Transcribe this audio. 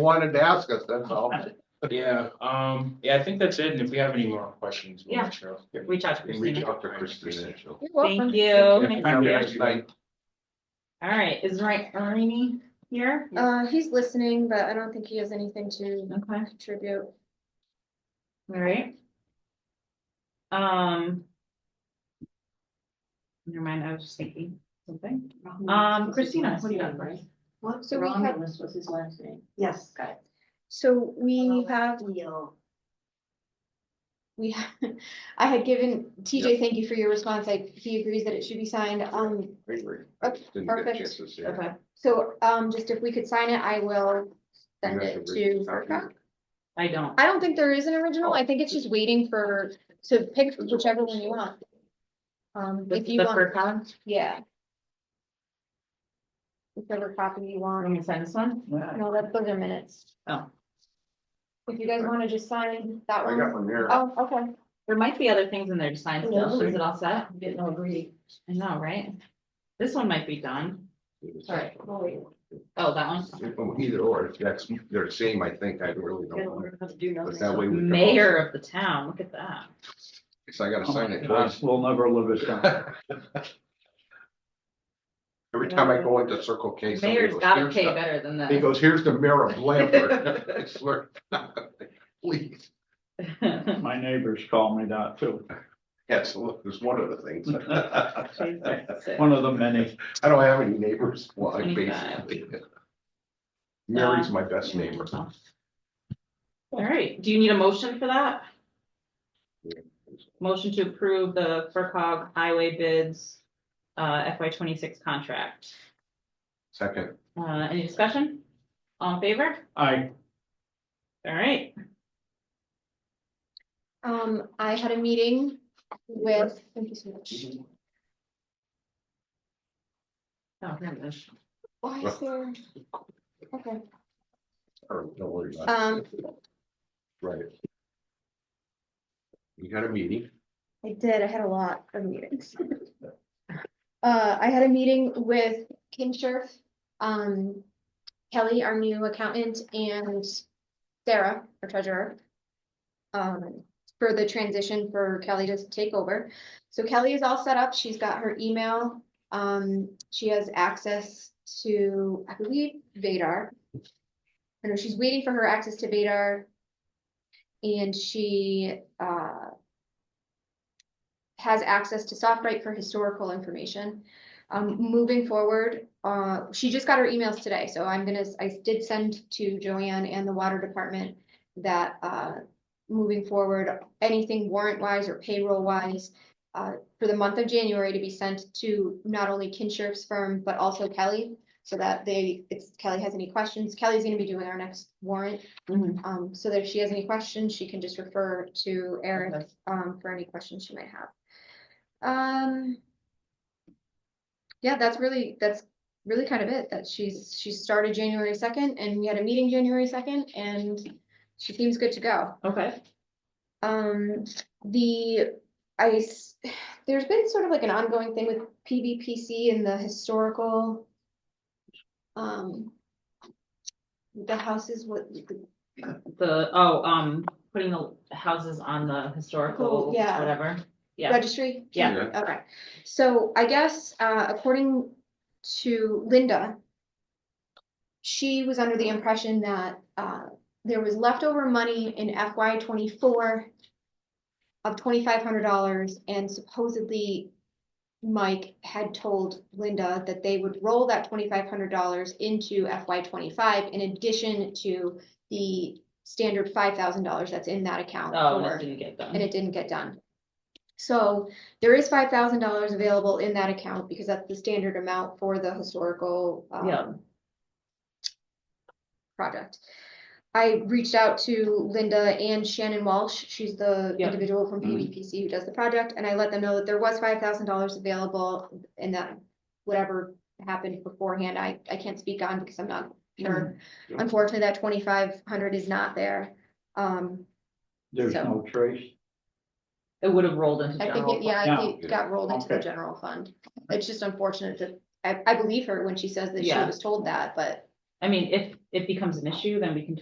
wanted to ask us, that's all. Yeah, um, yeah, I think that's it. And if we have any more questions, we'll Yeah. let you know. Reach out to You can Reach Christina. out to Christina. she'll- Thank you. Thank you. Nice night. All right, is right Ernie here? Uh, he's listening, but I don't think he has anything to Okay, contribute. all right. Um. Never mind, I was just thinking something. Um, Christina, what do you got for us? What, Mm-hmm. So we have- Romulus was his last name? Yes. Got it. So Oh. we have, Leo. we, have I had given, TJ, thank you for your response. I, he agrees that it should be signed. Um, Hey, Rick, Oh, didn't get a perfect. chance to see her. Okay, so, um, just if we could sign it, I will send You have it to read to the document. Verka. I don't. I don't think there is an original. I think it's just waiting for, to pick whichever one you want. Um, The- if you the want, first one? yeah. Whichever copy you Want me want. to sign this one? No, that's those are minutes. Oh. If you guys want to just sign that I got one. one here. Oh, okay. There might be other things in there to sign. still. Is it all set? Didn't agree. I know, right? This one might be done. Sorry. Oh, that one? Either or, if that's, they're the same, I think, I really don't. know. Do But nothing. that way we. can Mayor also- of the town, look at that. So I gotta Oh sign my it gosh, twice. We'll never live it down. Every time I go into Circle K. somebody Mayor's goes, gotta "Here's pay the-" better than He that. goes, here's the mayor of Blanford. It's like, Please, My neighbors call me that too. yes, it's one of the things. One of the many. I don't have any neighbors, well, I 25. basically. Mary's my best neighbor. All right, do you need a motion for that? Motion to approve the FERCog highway bids, uh, FY twenty-six contract. Second, Uh, any discussion? All in favor? I, All right, Um, I had a meeting with, thank you so much. Mm-hmm. oh, here it is. Why is there? Oh, Okay, or don't worry about it, um, right. You had a meeting, I did, I had a lot of meetings. Uh, I had a meeting with Kinshirf, um, Kelly, our new accountant, and Sarah, our treasurer. Um, for the transition for Kelly to take over. So Kelly is all set up. She's got her email. Um, she has access to, I believe, Vadar. I know she's waiting for her access to Vadar. And she, uh, has access to SoftWrite for historical information. Um, moving forward, uh, she just got her emails today, so I'm gonna, I did send to Joanne and the water department that, uh, moving forward, anything warrant wise or payroll wise, uh, for the month of January to be sent to not only Kinshir's firm, but also Kelly, so that they, if Kelly has any questions, Kelly's gonna be doing our next warrant. Mhm. Um, so that if she has any questions, she can just refer to Eric Okay. um, for any questions she might have. Um. Yeah, that's really, that's really kind of it, that she's, she started January second and we had a meeting January second and she seems good to go. Okay, Um, the, I, s- there's been sort of like an ongoing thing with PVPC and the historical. Um. The houses, what, the, oh, um, putting the houses on the historical, Oh, yeah. whatever. Yeah, registry? yeah. Okay, so I guess, uh, according to Linda. She was under the impression that, uh, there was leftover money in FY twenty-four. Of twenty-five hundred dollars and supposedly. Mike had told Linda that they would roll that twenty-five hundred dollars into FY twenty-five in addition to the. Standard five thousand dollars that's in that account. Oh, and for- it didn't get and done. it didn't get done. So there is five thousand dollars available in that account because that's the standard amount for the historical. um, Yeah. Project. I reached out to Linda and Shannon Walsh. She's the Yeah. Mm-hmm. individual from Mhm. PVPC who does the project, and I let them know that there was five thousand dollars available and that whatever happened beforehand, I, I can't speak on because I'm not sure. Mm-hmm. Mhm. Unfortunately, that twenty-five hundred is not there. Um, there's So- no trace. It would have rolled into I think, general. it yeah, I fund. think it got rolled into the Okay. general fund. It's just unfortunate that, I, I believe her when she says that she Yeah. was told that, but I mean, if it becomes an issue, then we can